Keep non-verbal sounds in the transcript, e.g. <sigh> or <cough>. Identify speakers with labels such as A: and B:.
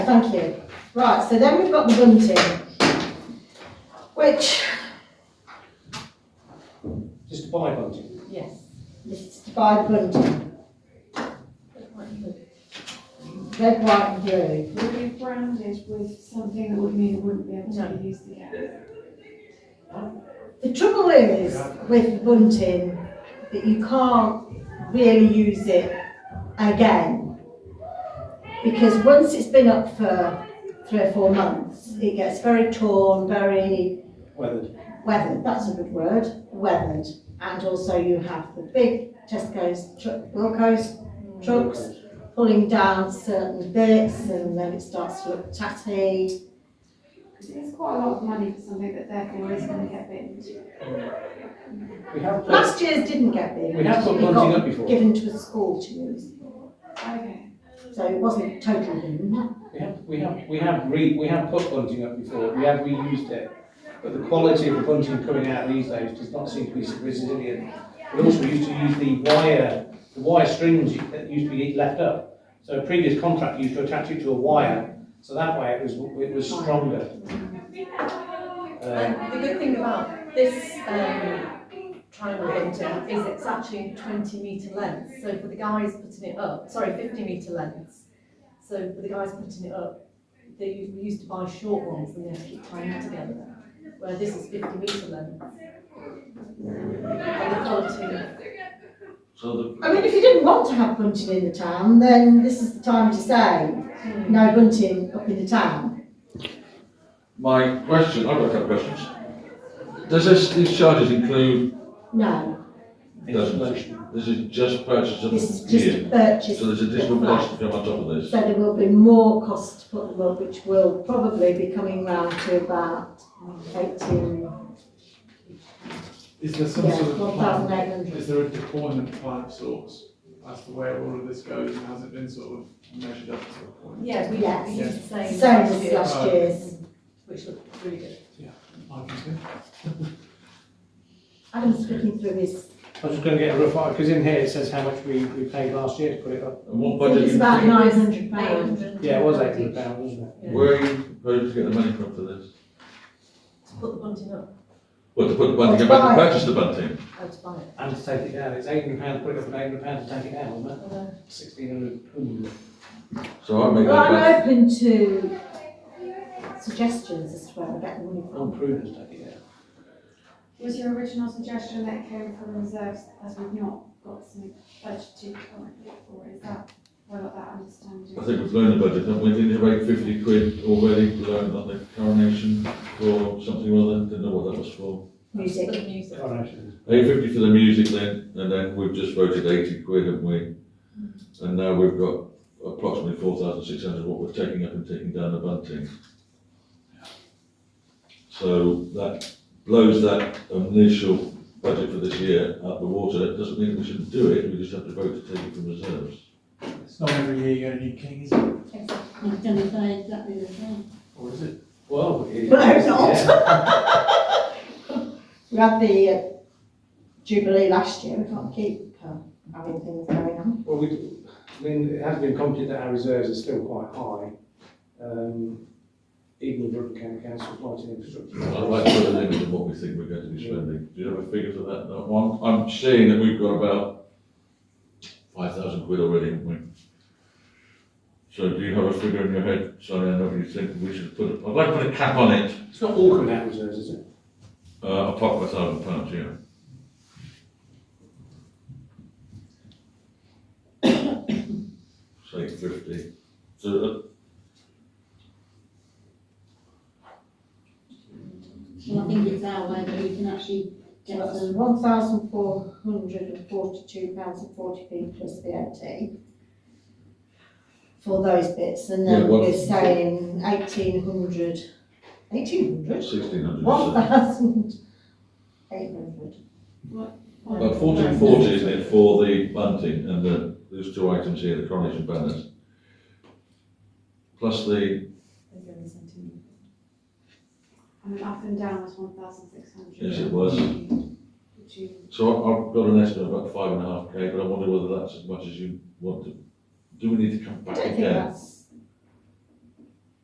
A: thank you. Right, so then we've got the bunting, which,
B: Just to buy bunting.
A: yes, this is to buy the bunting. Red, white and blue.
C: Would be branded with something that would mean it wouldn't be able to be used again.
A: The trouble is with bunting, that you can't really use it again. Because once it's been up for three or four months, it gets very torn, very
B: Weathered.
A: weathered, that's a good word, weathered. And also you have the big Tesco's, tr- Wilco's trucks pulling down certain bits and then it starts to look tatty.
C: Because it's quite a lot of money for something that therefore is going to get binned.
B: We have put,
A: Last year's didn't get big.
B: we have put
A: We got
B: bunting up before.
A: Given to a school to use,
C: Okay.
A: so it wasn't totally in.
B: We have, we have, we have re, we have put bunting up before, we have reused it. But the quality of the bunting coming out these days does not seem to be so resilient. We also used to use the wire, the wire strings that used to be left up. So a previous contract used to attach it to a wire, so that way it was, it was stronger. Um,
D: And the good thing about this um, triangle bunting is it's actually 20 metre lengths. So for the guys putting it up, sorry, 50 metre lengths. So for the guys putting it up, they we used to buy short ones and they have to keep tying it together. Where this is 50 metre length. And the quality,
E: So the.
A: I mean, if you didn't want to have bunting in the town, then this is the time to say, no bunting up in the town.
E: My question, I've got a couple of questions. Does this, these charges include,
A: No,
B: Installation.
E: this is just purchase of
A: this is
E: the
A: just a
E: year?
A: purchase.
E: So there's
A: of the
E: additional
A: flat.
E: purchase to come on top of this?
A: So there will be more costs to put them up, which will probably be coming round to about eighteen,
F: Is there some
A: yeah,
F: sort of
A: one
F: plan?
A: thousand eight hundred.
F: Is there a deployment plan of sorts as to where all of this goes and has it been sort of measured up to a point?
D: yeah, we
A: Yes.
D: we used the same.
A: Same
D: last
A: as
D: year,
A: last year's.
D: Which looked really good.
F: I can think.
A: Adam's speaking through his,
B: I was just gonna get a rough, because in here it says how much we, we paid last year to put it up.
E: And what
A: I think
E: budget,
A: it's about
E: you-
A: nine hundred pounds.
D: 800.
B: Yeah, it was eight hundred pounds, wasn't it?
D: Yeah.
E: where are you hoping to get the money from for this?
D: To put the bunting up,
E: What, to put the bunting,
A: Well, to
E: about
A: buy.
E: to purchase the bunting?
D: I had to buy it.
B: And to take it down, it's eight hundred pounds, put it up and eight hundred pounds to take it down, wasn't it?
D: And, uh,
B: Sixteen hundred.
E: So I make
A: Well,
E: that,
A: I'm open to suggestions as to where I get the money
B: I'm
A: from.
B: prudent, I think, yeah.
C: Was your original suggestion that came from reserves as we've not got some budgeted currently, or is that, I got that understanding?
E: I think we've learned the budget, haven't we? Didn't you make fifty quid already, we learned on the coronation for something or other, didn't know what that was for.
D: For
A: Music,
D: the music.
E: Eight fifty for the music then, and then we've just voted eighty quid, haven't we? And now we've got approximately four thousand six hundred what we're taking up and taking down the bunting. So that blows that initial budget for this year out the water, it doesn't mean we shouldn't do it, we just have to vote to take it from reserves.
F: It's not every year you're gonna need king, is it?
G: I'm gonna say exactly the same.
F: Or is it?
B: Well, it-
A: Well, I hope not.
B: yeah.
A: we had the uh, Jubilee last year, we can't keep uh, having things going on.
B: Well, we, I mean, it has been commented that our reserves are still quite high. Um, even with Rutland County Council, lighting infrastructure.
E: I'd like to put a limit on what we think we're going to be spending. Do you have a figure for that, that one? I'm seeing that we've got about five thousand quid already, haven't we? So do you have a figure in your head, sorry, I know you think we should put, I'd like to put a cap on it,
B: It's not all coming out of reserves, is it?
E: uh, apart from a thousand pounds, yeah. <coughs> Say fifty, so, uh,
G: Well, I think it's our way that we can actually get
A: Well, That's
G: some.
A: one thousand four hundred and forty-two pounds and forty p plus VAT for those bits, and
E: Yeah,
A: then
E: what-
A: we're saying eighteen hundred, eighteen hundred?
E: uh, sixteen hundred.
A: One thousand eight hundred.
E: About fourteen forty, isn't it, for the bunting and the, those two items here, the coronation banners. Plus the,
D: Maybe only sent
C: And then up and down was one thousand six hundred.
E: yes, it was,
C: Which you,
E: so I- I've got an estimate of about five and a half K, but I wonder whether that's as much as you want to. Do we need to come
A: I
E: back
A: don't think
E: again?
A: that's,